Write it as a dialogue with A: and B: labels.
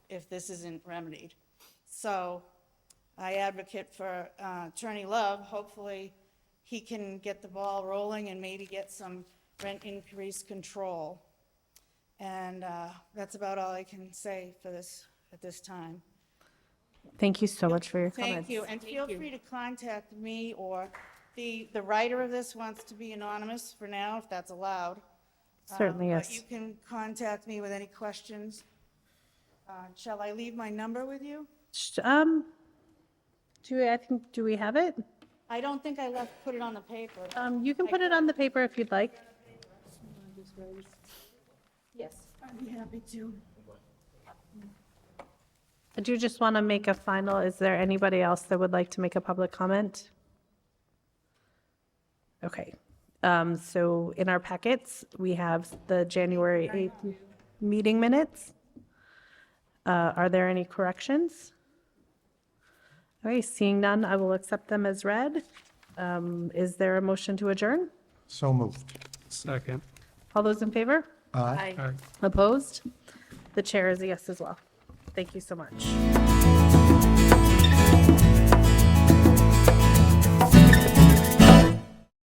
A: if this isn't remedied. So I advocate for uh, Attorney Love. Hopefully, he can get the ball rolling and maybe get some rent increase control. And uh, that's about all I can say for this, at this time.
B: Thank you so much for your comments.
A: Thank you, and feel free to contact me or the, the writer of this wants to be anonymous for now, if that's allowed. Um,
B: Certainly,
A: But
B: yes.
A: you can contact me with any questions. Uh, Shall I leave my number with you?
B: Sh- Um, do, we- I think, do we have it?
A: I don't think I left, put it on the paper.
B: Um, you can put it on the paper if you'd like.
A: Yes. I'd be happy to.
B: I do just want to make a final, is there anybody else that would like to make a public comment? Okay, um, so in our packets, we have the January 8th meeting minutes. Uh, are there any corrections? Okay, seeing none, I will accept them as read. Um, is there a motion to adjourn?
C: So moved.
D: Second.
B: All those in favor?
C: Aye.
D: Aye.
B: Opposed? The chair is a yes as well. Thank you so much.